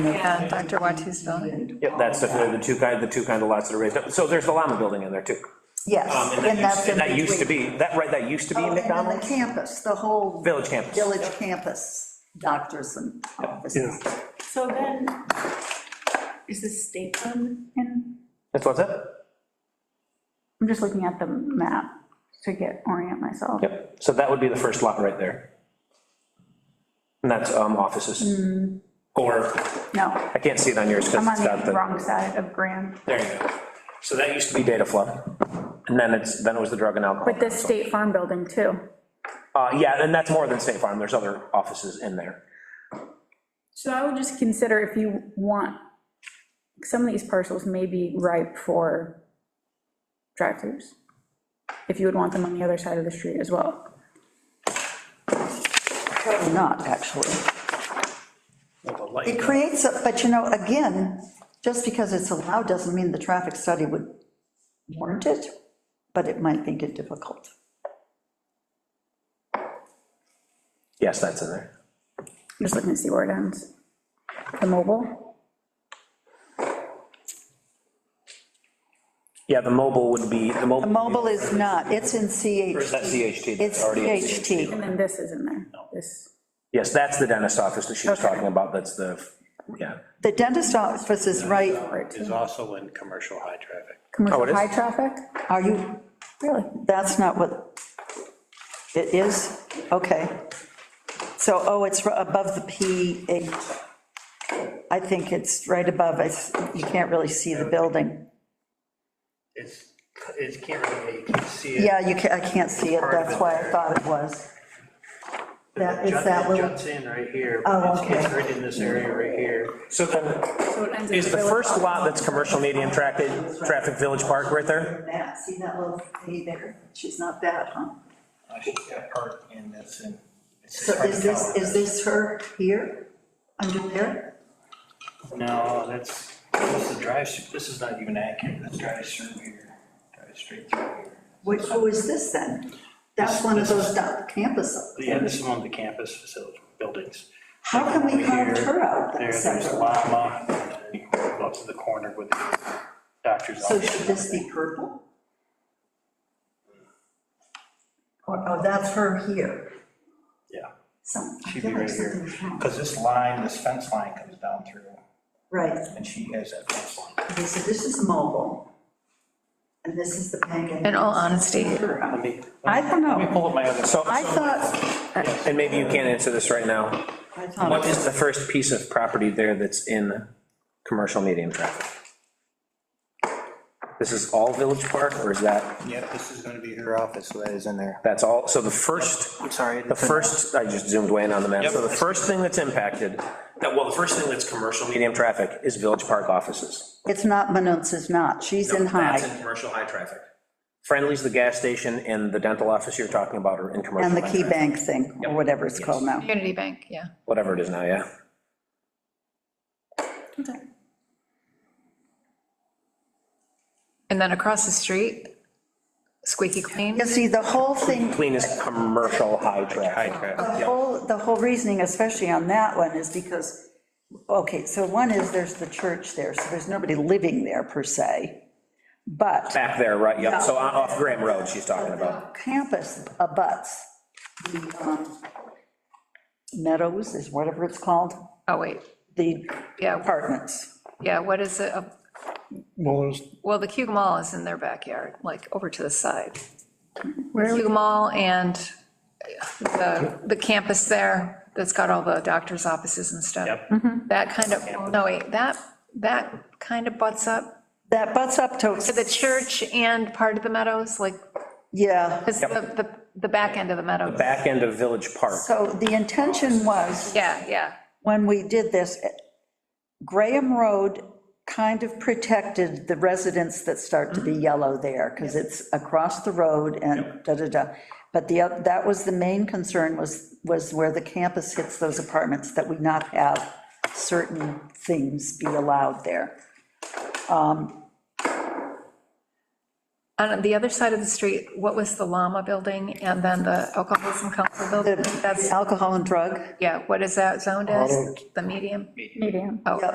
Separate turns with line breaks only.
Yeah, Dr. Watu's
Um,
building.
Yep, that's the, the two kind, the two kind of lots that are raised up, so there's the Lama building in there too. Um,
Yes,
And
and
that
that's
used,
in
and that used to
between.
be, that, right, that used to be
Oh, And then the
McDonald's,
campus, the whole
Village Campus.
village campus, doctors and offices.
So then, is this Staplin in?
That's what's that?
I'm just looking at the map to get, orient myself.
Yep, so that would be the first lot right there. And that's um, offices. Or,
No,
I can't see it on yours because
I'm on
it's got
the
the,
wrong side of Graham.
there you go. So that used to be Data Flood. And then it's, then it was the drug and alcohol.
But the State Farm Building too.
Uh, yeah, and that's more than State Farm, there's other offices in there.
So I would just consider if you want, some of these parcels may be ripe for drive-throughs. If you would want them on the other side of the street as well.
Probably Not, actually.
Well, the light-
It creates, a- but you know, again, just because it's allowed doesn't mean the traffic study would warrant it, but it might make it difficult.
Yes, that's in there.
I'm just looking to see where it ends. The mobile,
Yeah, the mobile would be, the mobile.
The mobile is not, it's in
Or is that
CHT.
CHT?
It's
Already in
CHT.
and then this is in there, this.
Yes, that's the dentist office that she was
Okay.
talking about, that's the, yeah.
The dentist office is right,
Is also in commercial high traffic.
Oh, it
Commercial
is?
high traffic?
are you,
Really?
that's not what, it is? Okay. So, oh, it's above the P8. I think it's right above, it's, you can't really see the building.
It's, it can't really, you can see it.
Yeah, you can, I can't see it, that's why I thought it was. That, is
Jut-
that
It
little,
juts in right here.
Oh,
It's-
okay.
It's right in this area right here.
So then,
So it ends in
is the
Village
first
Office.
lot that's commercial medium traffic, traffic Village Park right there?
that, see that little thing there? She's not that, huh?
I should get part in this and. it's
So
hard to
is this,
tell.
is this her here, under there?
No, that's, this is the drive, this is not even accurate, this drives through here, drives straight through here.
Which, who is this then? That's one of those down campus.
Yeah, this is one of the campus facility buildings.
How can we carve
Here,
her out that
There, there's a
section?
llama, and then you go up to the corner with the doctor's
So
office.
should this be purple? Or, oh, that's her here,
Yeah,
some, I
She'd
feel
be
like
right here,
something's wrong.
because this line, this fence line comes down through,
Right,
and she has that fence line.
okay, so this is mobile, and this is the pancake.
In all honesty,
let me,
I don't
let me
know.
pull up my other.
So,
I thought,
and maybe you can't answer this right now.
I
What
thought,
is the first piece of property there that's in commercial medium traffic? This is all Village Park, or is that,
Yep, this is gonna be her office, so that is in there.
that's all, so the first,
I'm sorry.
the first, I just zoomed way in on the map,
Yep.
so the first thing that's impacted, that, well, the first thing that's commercial medium traffic is Village Park offices.
it's not, Manut's is not, she's in
That's
high,
in commercial high traffic. Friendly's, the gas station, and the dental office you're talking about are in commercial.
and the
high
key
traffic.
bank thing, or whatever it's called now.
community bank, yeah.
Whatever it is now, yeah.
And then across the street, squeaky clean.
You see, the whole thing,
Clean is commercial high traffic.
High traffic.
the whole, the whole reasoning, especially on that one, is because, okay, so one is there's the church there, so there's nobody living there per se, but
Back there, right, yep, so on- off Graham Road she's talking about.
campus abuts the um, Meadows, is whatever it's called,
Oh, wait,
the
yeah,
apartments.
yeah, what is it? Uh,
Well, there's,
Well, the Cug Mall is in their backyard, like over to the side.
Where are we?
Cug Mall and the, the campus there, that's got all the doctor's offices and stuff.
Yep.
Mm-hmm.
That kind of, no, wait, that, that kind of butts up
That butts up
to the
to,
church and part of the meadows, like,
yeah,
because the, the, the back end of the meadows.
Back end of Village Park,
so the intention was
Yeah, yeah.
when we did this, Graham Road kind of protected the residents that start to be yellow there, because it's across the road and da-da-da. But the, oth- that was the main concern was, was where the campus hits those apartments, that we not have certain things be allowed there.
On the other side of the street, what was the Llama Building and then the Alcoholism Council Building?
The
That's,
alcohol and drug.
yeah, what is that zoned as?
Auto-
The medium?
Medium.
Oh,